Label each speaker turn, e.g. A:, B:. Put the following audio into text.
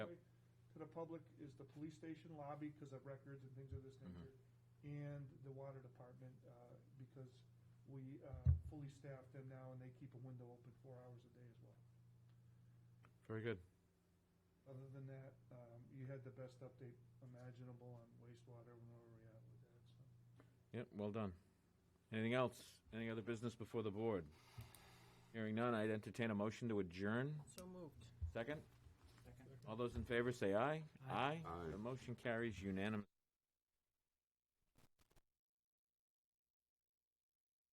A: public is the police station lobby because of records and things of this nature, and the water department, uh, because we uh, fully staff them now, and they keep a window open four hours a day as well.
B: Very good.
A: Other than that, um, you had the best update imaginable on wastewater and where we're at with that, so.
B: Yep, well done. Anything else? Any other business before the board? Hearing none, I'd entertain a motion to adjourn.
C: So moved.
B: Second? All those in favor say aye. Aye.
D: Aye.
B: The motion carries unanimously.